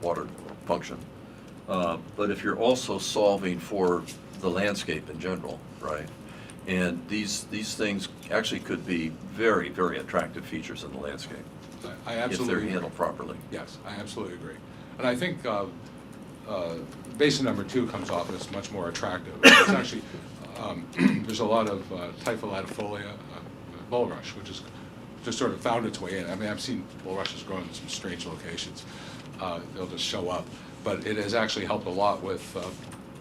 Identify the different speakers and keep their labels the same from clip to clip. Speaker 1: water function. Uh, But if you're also solving for the landscape in general, right? And these, these things actually could be very, very attractive features in the landscape.
Speaker 2: I- I absolutely.
Speaker 1: If they're
Speaker 2: agree.
Speaker 1: handled properly.
Speaker 2: Yes, I absolutely agree. And I think uh, uh, basin number two comes off as much more attractive. It's actually, um, there's a lot of uh, Typholatifolia uh, bulrush, which is, just sort of found its way in. I mean, I've seen bulrushes grow in some strange locations. Uh, They'll just show up. But it has actually helped a lot with, uh,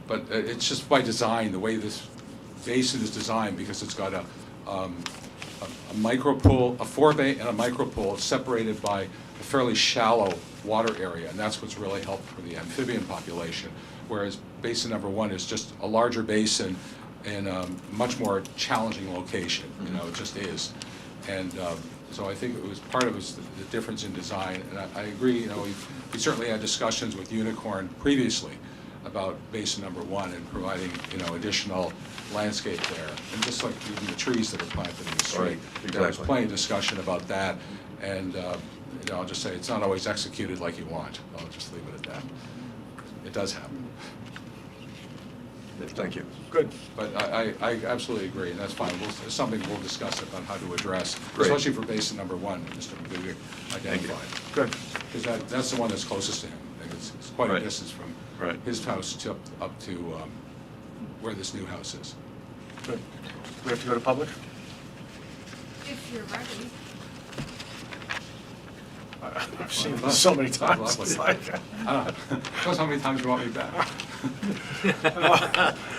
Speaker 2: but it- it's just by design, the way this basin is designed, because it's got a, um, a- a micro pool, a forebay and a micro pool separated by a fairly shallow water area, and that's what's really helped for the amphibian population. Whereas basin number one is just a larger basin in a much more challenging location, you know, it just is. And um, so I think it was, part of it was the the difference in design, and I, I agree, you know, we we certainly had discussions with Unicorn previously about basin number one and providing, you know, additional landscape there, and just like even the trees that are planted in the
Speaker 1: Right,
Speaker 2: street. There was
Speaker 1: exactly.
Speaker 2: plenty of discussion about that, and, uh, you know, I'll just say, it's not always executed like you want. I'll just leave it at that. It does happen.
Speaker 1: Thank you.
Speaker 2: Good. But I, I I absolutely agree, and that's fine. We'll, it's something we'll discuss about how to address,
Speaker 1: Great.
Speaker 2: especially for basin number one, that Mr. McDougal identified.
Speaker 1: Good.
Speaker 2: Because that, that's the one that's closest to him. and It's it's quite a
Speaker 1: Right.
Speaker 2: distance from
Speaker 1: Right.
Speaker 2: his house to, up to um, where this new house is.
Speaker 3: Good. We have to go to public?
Speaker 4: If you're ready.
Speaker 3: I've seen this so many times. It's like,
Speaker 2: I don't know. Tell us how many times you want me back.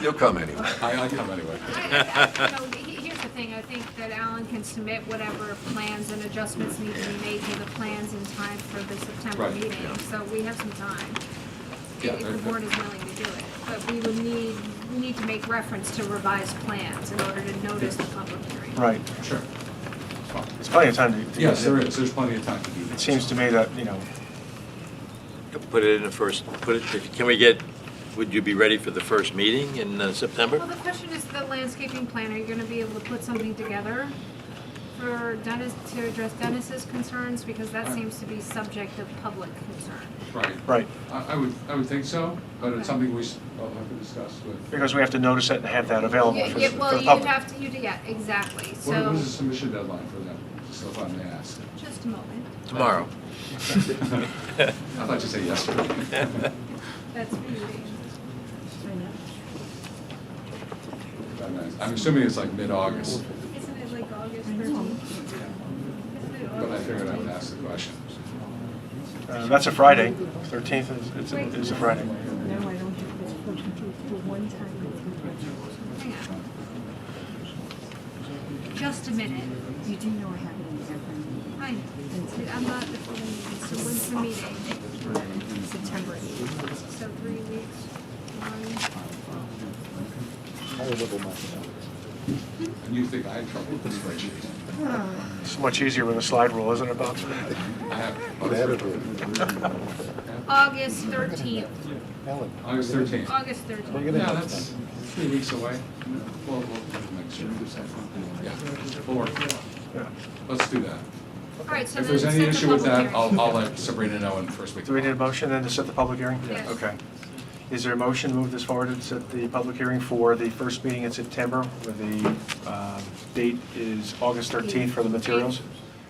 Speaker 1: You'll come anyway.
Speaker 2: I, I come anyway.
Speaker 4: I- I- I- you know, he- Here's the thing, I think that Alan can submit whatever plans and adjustments need to be made to the plans in time for the September
Speaker 2: Right,
Speaker 4: meeting.
Speaker 1: yeah.
Speaker 4: So we have some time, if-
Speaker 2: Yeah,
Speaker 4: if
Speaker 2: there-
Speaker 4: the board is willing to do it. But we would need, we need to make reference to revised plans in order to notice the public hearing.
Speaker 3: Right.
Speaker 2: Sure.
Speaker 3: There's plenty of time to. to
Speaker 2: Yes,
Speaker 3: get it.
Speaker 2: there is. There's plenty of time to do
Speaker 3: It
Speaker 2: this.
Speaker 3: seems to me that, you know,
Speaker 5: Put it in the first, put it, if- can we get, would you be ready for the first meeting in uh,
Speaker 4: Well,
Speaker 5: September?
Speaker 4: the question is the landscaping plan, are you gonna be able to put something together for Dennis, to address Dennis's concerns? Because that seems to be subject of public concern.
Speaker 2: Right.
Speaker 3: right,
Speaker 2: I, I would, I would think so, but
Speaker 4: Okay.
Speaker 2: it's something we, s- I'll have to discuss with.
Speaker 3: because we have to notice it and have that available
Speaker 4: Yeah,
Speaker 3: for the
Speaker 4: yeah,
Speaker 3: for
Speaker 4: well,
Speaker 3: the
Speaker 4: you'd
Speaker 3: public.
Speaker 4: have to, you'd, yeah, exactly,
Speaker 2: What
Speaker 4: so,
Speaker 2: what is the submission deadline for that, so if I may ask?
Speaker 4: just a moment,
Speaker 5: Tomorrow.
Speaker 2: I thought you said yesterday.
Speaker 4: that's meeting.
Speaker 2: I'm assuming it's like mid-August,
Speaker 4: Isn't it like August thirteenth?
Speaker 2: but I figured I would ask the question.
Speaker 3: Uh, That's a Friday, 13th is- is, is a Friday.
Speaker 6: No, I don't think it's forty-two for one time.
Speaker 4: Hang on. Just a minute,
Speaker 6: You do know I have an exam
Speaker 4: I, I'm not, before the meeting. so when's the meeting?
Speaker 6: in September eighth.
Speaker 4: So three weeks, one,
Speaker 2: And you think I had trouble with the spreadsheet?
Speaker 3: It's much easier with a slide rule, isn't it, Bob?
Speaker 2: I have,
Speaker 4: August thirteenth,
Speaker 2: August thirteenth.
Speaker 4: August thirteenth.
Speaker 2: Yeah, that's three weeks away. We'll, we'll make sure. Yeah, we'll work.
Speaker 3: Yeah.
Speaker 2: Let's do that.
Speaker 4: All right, so
Speaker 2: If
Speaker 4: then
Speaker 2: there's any
Speaker 4: set the
Speaker 2: issue with
Speaker 4: public
Speaker 2: that,
Speaker 4: hearing.
Speaker 2: I'll, I'll let Sabrina know in first week.
Speaker 3: Do we need a motion then to set the public hearing?
Speaker 4: Yes.
Speaker 3: Okay. Is there a motion to move this forward and set the public hearing for the first meeting in September? where The um, date is August 13th for the materials?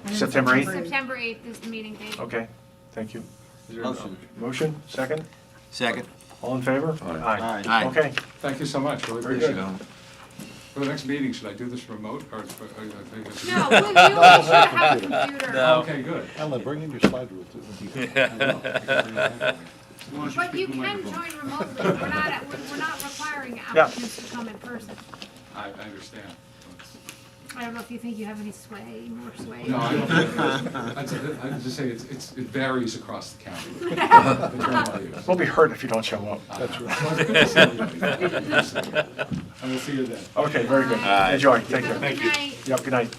Speaker 6: And
Speaker 3: September 8th?
Speaker 4: September eighth is the meeting date.
Speaker 3: Okay, thank you. Is there a Motion, second?
Speaker 5: Second.
Speaker 3: All in favor?
Speaker 5: Aye. Aye.
Speaker 3: Okay,
Speaker 2: Thank you so much, really
Speaker 3: Very
Speaker 2: appreciate
Speaker 3: good.
Speaker 2: it. For the next meeting, should I do this remote or? or- or- I think it's-
Speaker 4: No, we, we should have a computer.
Speaker 2: Okay, good.
Speaker 7: Ellen, bring in your slide rule too.
Speaker 4: But you can join remotely, we're not, we're we're not requiring
Speaker 3: Yeah.
Speaker 4: applicants to come in person.
Speaker 2: I, I understand.
Speaker 4: I don't know if you think you have any sway, more sway.
Speaker 2: No, I don't, I, I just say it's, it's, it varies across the county. The term I use.
Speaker 3: we'll be hurt if you don't show up.
Speaker 2: That's right. I will see you then.
Speaker 3: Okay, very good.
Speaker 4: Aye.
Speaker 3: Enjoy, take
Speaker 4: Have a
Speaker 3: care.
Speaker 4: good night.
Speaker 3: Yep, good night.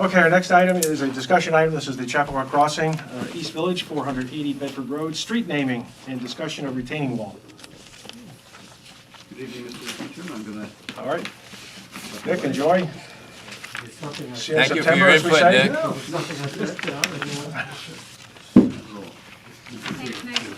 Speaker 3: Okay, our next item is a discussion item. This is the Chapua Crossing, uh, East Village, 480 Bedford Road, street naming and discussion of retaining wall.
Speaker 8: Good evening, Mr. Chairman. I'm gonna.
Speaker 3: All right. Nick, enjoy. See you in
Speaker 5: Thank you for
Speaker 3: September,
Speaker 5: your
Speaker 3: as we
Speaker 5: input,
Speaker 3: say.
Speaker 5: Nick.
Speaker 8: roll.
Speaker 4: Thank Nice.